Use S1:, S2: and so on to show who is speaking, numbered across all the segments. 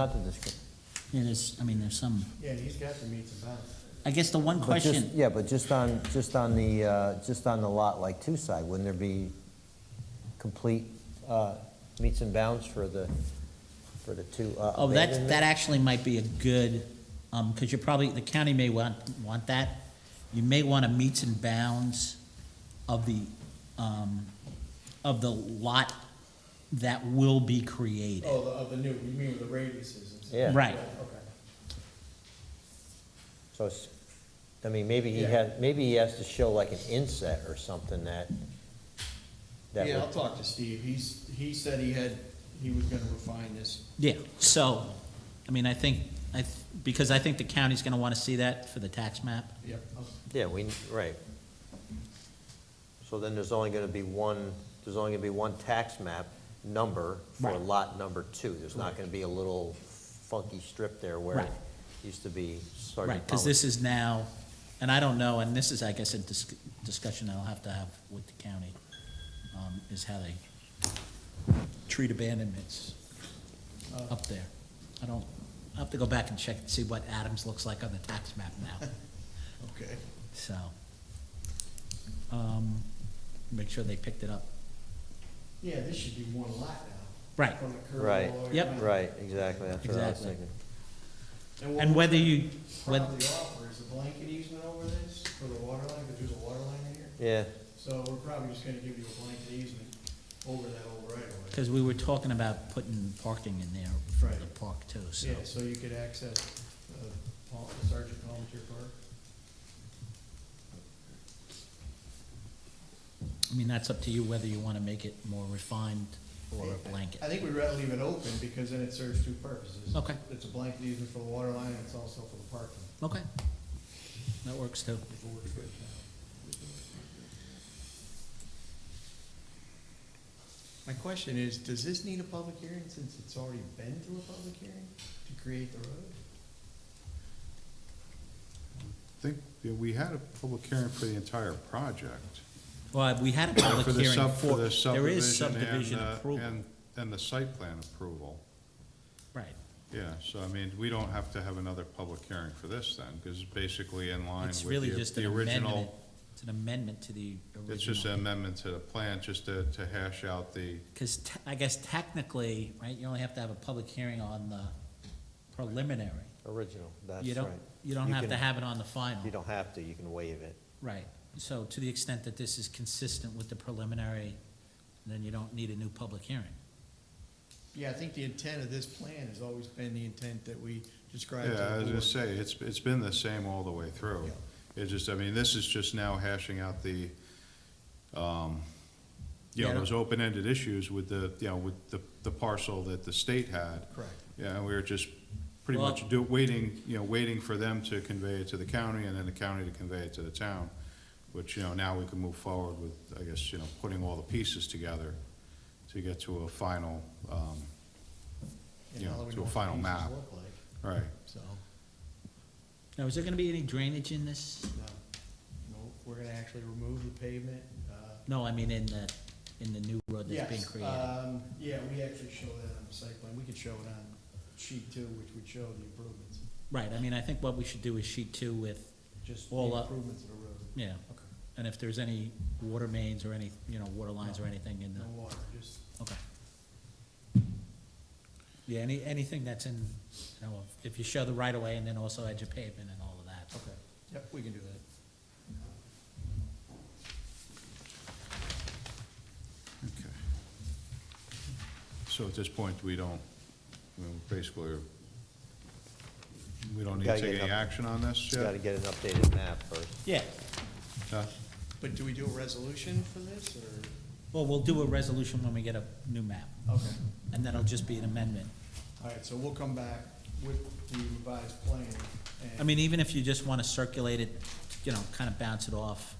S1: Not the description.
S2: Yeah, there's, I mean, there's some,
S3: Yeah, he's got the meets and bounds.
S2: I guess the one
S1: But just-
S2: question,
S1: Yeah, but just on, just on the, uh, just on the lot like two side, wouldn't there be complete uh, meets and bounds for the, for the two uh,
S2: oh, that, that
S1: abandonment?
S2: actually might be a good, um, because you're probably, the county may want, want that. You may want to meets and bounds of the, um, of the lot that will be created.
S3: Oh, the- of the new, you mean with the radiuses and stuff?
S1: Yeah.
S2: Right.
S3: Okay.
S1: So, it's- I mean, maybe he
S3: Yeah.
S1: had, maybe he has to show like an inset or something that, that
S3: Yeah, I'll
S1: would,
S3: talk to Steve. He's, he said he had, he was gonna refine this.
S2: Yeah, so, I mean, I think, I, th- because I think the county's going to want to see that for the tax map.
S3: Yep. I'll-
S1: yeah, we, right. So then there's only gonna be one, there's only gonna be one tax map number for
S2: Right.
S1: lot number two. There's not gonna be a little funky strip there where it
S2: Right.
S1: used to be Sergeant
S2: Right, because
S1: Palmer's.
S2: this is now, and I don't know, and this is, I guess, a dis- discussion I'll have to have with the county, um, is how they treat abandonments
S3: Uh,
S2: up there. I don't, I'll have to go back and check and see what Adams looks like on the tax map now,
S3: Okay.
S2: so. um, Make sure they picked it up.
S3: Yeah, this should be one lot now.
S2: Right,
S3: From the curve
S1: Right.
S3: all the way
S2: Yep.
S3: around.
S1: Right, exactly, that's what I was
S2: Exactly.
S1: thinking.
S3: what
S2: and
S3: we
S2: whether you, whether,
S3: Probably offer is a blanket easement over this for the water line, because there's a water line in here.
S1: Yeah,
S3: So we're probably just gonna give you a blanket easement over that old right of way.
S2: because we were talking about putting parking in there for the
S3: Right.
S2: park too, so.
S3: Yeah, so you could access, uh, Paul- Sergeant Palmetier Park.
S2: I mean, that's up to you whether you want to make it more refined or a blanket.
S3: I think we'd rather leave it open, because then it serves two purposes.
S2: Okay.
S3: It's a blanket easement for the water line, and it's also for the parking.
S2: Okay. That works too.
S3: if it works good now. My question is, does this need a public hearing, since it's already been through a public hearing, to create the road?
S4: I think that we had a public hearing for the entire project.
S2: Well, we had a public
S4: for the
S2: hearing
S4: sub-
S2: for,
S4: the
S2: there is
S4: and,
S2: subdivision
S4: uh,
S2: approval.
S4: And, and the site plan approval,
S2: Right,
S4: yeah, so I mean, we don't have to have another public hearing for this then, because it's basically in line
S2: it's
S4: with
S2: really
S4: the-
S2: just an
S4: the
S2: amendment,
S4: original.
S2: it's an amendment to the
S4: It's just an
S2: original.
S4: amendment to the plan, just to, to hash out the,
S2: Because te- I guess technically, right, you only have to have a public hearing on the preliminary.
S1: original, that's
S2: You
S1: right.
S2: don't, you don't
S1: You
S2: have to
S1: can-
S2: have it on the final.
S1: You don't have to, you can waive it.
S2: Right, so to the extent that this is consistent with the preliminary, then you don't need a new public hearing.
S3: Yeah, I think the intent of this plan has always been the intent that we
S4: yeah,
S3: described to
S4: I was
S3: the
S4: gonna
S3: board.
S4: say, it's, it's been the same all the way through.
S3: Yeah.
S4: It just, I mean, this is just now hashing out the, um, you
S2: Yeah.
S4: know, those open-ended issues with the, you know, with the, the parcel that the state had.
S3: Correct.
S4: Yeah, and we were just pretty
S2: Well-
S4: much do, waiting, you know, waiting for them to convey it to the county and then the county to convey it to the town, which, you know, now we can move forward with, I guess, you know, putting all the pieces together to get to a final, um,
S3: And
S4: Yeah,
S3: how we
S4: to a
S3: know what
S4: final
S3: the pieces
S4: map.
S3: look like,
S4: right.
S3: So, uh,
S2: Now, is there gonna be any drainage in this?
S3: no, no, we're gonna actually remove the pavement, uh,
S2: No, I mean in the, in the new road that's being
S3: Yes,
S2: created.
S3: um, yeah, we actually show that on the site plan, we could show it on sheet two, which would show the improvements,
S2: Right, I mean, I think what we should do is sheet two with,
S3: just the
S2: Well, uh,
S3: improvements of the road.
S2: yeah,
S3: Okay.
S2: and if there's any water mains or any, you know, water lines or anything in the,
S3: No water, just,
S2: okay. Yeah, any, anything that's in, you know, if you show the right of way and then also edge of pavement and all of that.
S3: okay, yep, we can do that.
S4: Okay. So at this point, we don't, we basically, we don't need to
S1: Gotta get
S4: take any
S1: up.
S4: action on this
S1: You gotta
S4: yet?
S1: get an updated map first.
S2: Yeah,
S4: Huh?
S3: But do we do a resolution for this, or?
S2: well, we'll do a resolution when we get a new map,
S3: Okay.
S2: and that'll just be an amendment.
S3: All right, so we'll come back with the revised plan, and.
S2: I mean, even if you just wanna circulate it, you know, kinda bounce it off.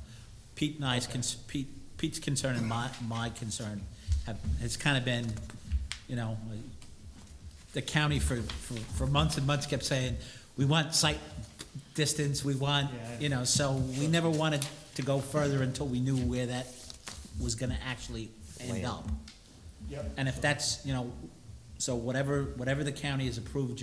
S2: Pete and I's, cons- Pete, Pete's concern and my, my concern have, has kinda been, you know, the county for, for, for months and months kept saying, we want site distance, we want,
S3: Yeah, I
S2: you know, so we never wanted to go further until we knew where that was gonna actually end
S1: Land.
S2: up.
S3: Yep,
S2: And if that's, you know, So whatever, whatever the county has approved